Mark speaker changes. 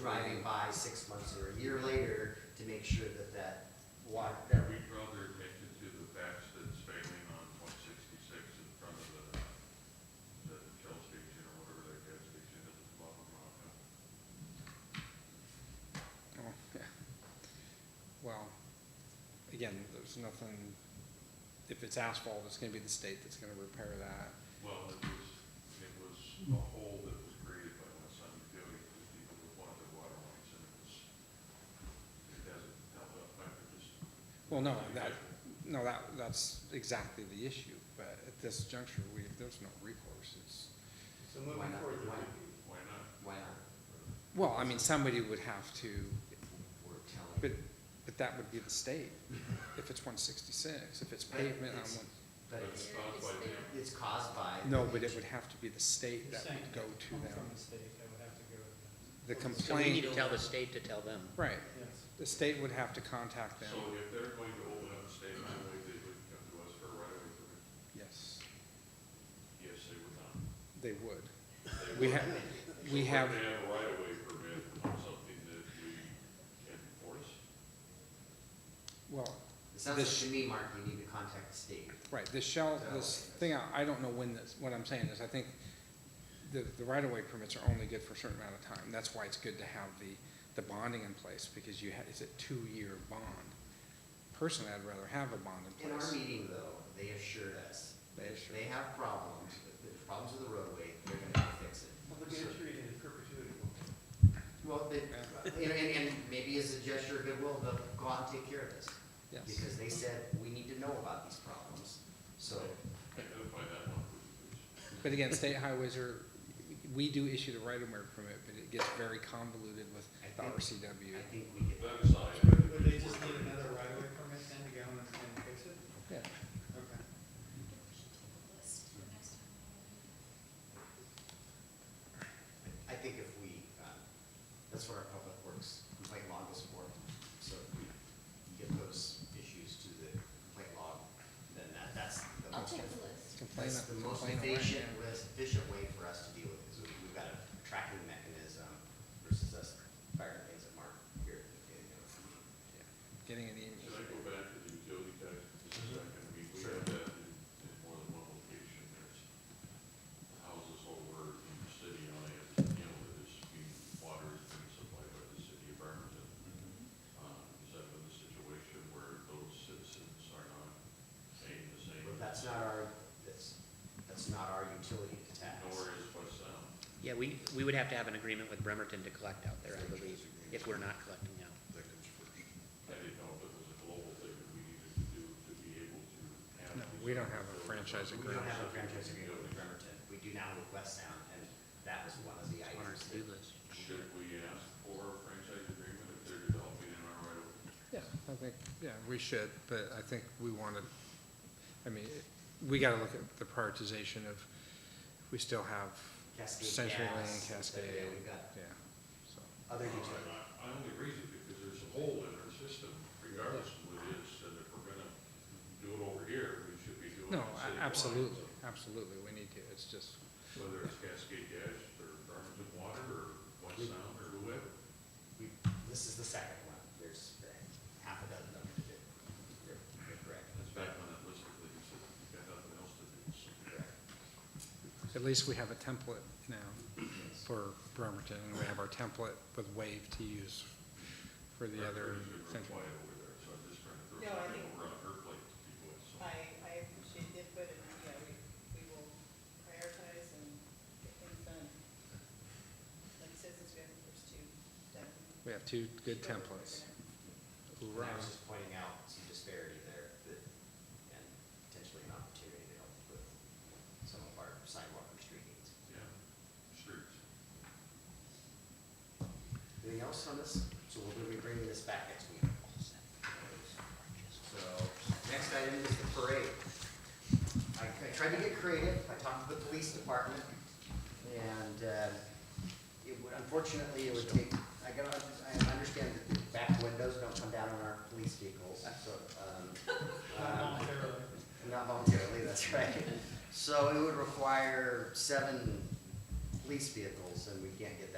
Speaker 1: driving by six months or a year later to make sure that that water, that
Speaker 2: We'd rather make it to the patch that's failing on one sixty-six in front of the, the Shell station or whatever that gas station is at the bottom of Rock Hill.
Speaker 3: Oh, yeah. Well, again, there's nothing, if it's asphalt, it's gonna be the state that's gonna repair that.
Speaker 2: Well, it was, it was a hole that was created by my son Joey, because people were wanting the water lines and it was, it hasn't held up, I could just.
Speaker 3: Well, no, that, no, that, that's exactly the issue, but at this juncture, we, there's no recourse, it's,
Speaker 4: So
Speaker 1: Why
Speaker 4: moving
Speaker 1: not?
Speaker 4: forward,
Speaker 1: Why-
Speaker 2: Why not?
Speaker 1: why not?
Speaker 3: well, I mean, somebody would have to,
Speaker 1: We're
Speaker 3: but,
Speaker 1: telling.
Speaker 3: but that would be the state, if it's one sixty-six, if it's
Speaker 1: But
Speaker 3: pavement on
Speaker 1: it's-
Speaker 3: one.
Speaker 1: But
Speaker 2: But
Speaker 1: it's,
Speaker 2: it's caused by them.
Speaker 1: it's caused by.
Speaker 3: No, but it would have to be the state that
Speaker 4: Same.
Speaker 3: would go to
Speaker 4: I'm from
Speaker 3: them.
Speaker 4: the state, I would have to go with them.
Speaker 3: The
Speaker 5: So we need
Speaker 3: complaint,
Speaker 5: to tell the state to tell them.
Speaker 3: right,
Speaker 4: Yes.
Speaker 3: the state would have to contact them,
Speaker 2: So if they're going to open up state highway, they would come to us for a right of way permit?
Speaker 3: yes,
Speaker 2: Yes, they would not.
Speaker 3: they would.
Speaker 2: They
Speaker 3: We
Speaker 2: would.
Speaker 3: have, we
Speaker 2: So
Speaker 3: have,
Speaker 2: We're gonna have a right of way permit on something that we can enforce.
Speaker 3: well,
Speaker 1: It sounds like
Speaker 3: This-
Speaker 1: to me, Mark, you need to contact the state.
Speaker 3: right, this shell, this thing, I I don't know when this, what I'm saying is, I think the, the right-of-way permits are only good for a certain amount of time. That's why it's good to have the, the bonding in place, because you, ha- it's a two-year bond. Personally, I'd rather have a bond in
Speaker 1: In our
Speaker 3: place.
Speaker 1: meeting though, they assured us
Speaker 3: They
Speaker 1: that
Speaker 3: assured
Speaker 1: they have problems, there's problems with the roadway, they're gonna fix it.
Speaker 4: Well, they're gonna treat it in perpetuity.
Speaker 1: Well, they, and, and, and maybe as a gesture of goodwill, they'll go out and take care of this.
Speaker 3: Yes,
Speaker 1: Because they said, we need to know about these problems, so.
Speaker 2: Identify that one, would you please?
Speaker 3: but again, state highways are, we do issue the right-of-way permit, but it gets very convoluted with
Speaker 1: I
Speaker 3: the
Speaker 1: think-
Speaker 3: RCW.
Speaker 1: I think we could,
Speaker 2: That aside, I think
Speaker 4: Would they
Speaker 2: it's
Speaker 4: just
Speaker 2: worth
Speaker 4: need
Speaker 2: it.
Speaker 4: another right of way permit then to go and, and fix it?
Speaker 3: Yeah,
Speaker 4: Okay.
Speaker 1: I think if we, um, that's what our public works complaint log is for. So if we get those issues to the complaint log, then that, that's the
Speaker 6: I'll
Speaker 1: most,
Speaker 6: take the list.
Speaker 3: complain,
Speaker 1: that's the most
Speaker 3: complain away.
Speaker 1: efficient, less efficient way for us to deal with it. So we- we've got a tracking mechanism versus us firing things at Mark here.
Speaker 3: Getting an
Speaker 2: Can I
Speaker 3: email.
Speaker 2: go back to the utility tax just a second? I mean, we
Speaker 1: Sure.
Speaker 2: have that in, in more than one location. There's houses over in the city, I, you know, that is being, water is being supplied by the city of Bremerton. Um, is that been the situation where those citizens are not paying the same?
Speaker 1: But that's not our, that's, that's not our utility to tax.
Speaker 2: Nor is West Sound.
Speaker 5: Yeah, we, we would have to have an agreement with Bremerton to collect out there, I believe, if we're not collecting out.
Speaker 2: I didn't know if it was a global thing that we needed to do to be able to have.
Speaker 3: No,
Speaker 2: these
Speaker 3: we don't
Speaker 2: other
Speaker 3: have a
Speaker 2: buildings.
Speaker 3: franchise
Speaker 1: We
Speaker 3: agreement.
Speaker 1: don't have a franchise agreement with Bremerton. We do now with West Sound, and that was one of the
Speaker 5: On our
Speaker 1: items.
Speaker 5: to-do
Speaker 1: that-
Speaker 5: list.
Speaker 2: Should we ask for a franchise agreement if they're developing in our right of way?
Speaker 3: Yeah, I think, yeah, we should, but I think we want to, I mean, we got to look at the prioritization of, we still have
Speaker 1: Cascade
Speaker 3: Century Lane,
Speaker 1: Gas,
Speaker 3: Cascade,
Speaker 1: yeah, we've got-
Speaker 3: yeah, so,
Speaker 1: Other utility.
Speaker 2: Uh, I only raise it because there's a hole in our system, regardless of what it is, and if we're gonna do it over here, we should be doing it
Speaker 3: no,
Speaker 2: citywide.
Speaker 3: a- absolutely, absolutely, we need to, it's just,
Speaker 2: Whether it's Cascade Gas, or Burlington Water, or West Sound, or whoever.
Speaker 1: We, this is the second one. There's half a dozen of them. that- You're you're correct.
Speaker 2: That's back on that list, that you said, you've got nothing else to do. so.
Speaker 1: Correct.
Speaker 3: at least we have a template now
Speaker 1: Yes.
Speaker 3: for Bremerton, and we have our template with Wave to use for the other
Speaker 2: There's a real
Speaker 3: Century.
Speaker 2: quiet over there, so I'm just trying to throw
Speaker 7: No, I
Speaker 2: something
Speaker 7: think-
Speaker 2: over on her plate to keep with, so.
Speaker 7: I, I appreciate the input, and, yeah, we, we will prioritize and get things done. Like you said, since we have the first two done.
Speaker 3: We have two good templates.
Speaker 1: And I was
Speaker 3: Hooray.
Speaker 1: just pointing out some disparity there that, and potentially an opportunity to help with some of our sidewalk and street needs.
Speaker 2: Yeah, streets.
Speaker 1: Anything else on this? So we'll be bringing this back next week. So, next item is the parade. I I tried to get creative, I talked to the police department, and uh, it would, unfortunately, it would take, I gotta, I understand that the back windows don't come down on our police vehicles, so, um,
Speaker 4: Not
Speaker 1: um,
Speaker 4: voluntarily.
Speaker 1: not voluntarily, that's right. So it would require seven police vehicles, and we can't get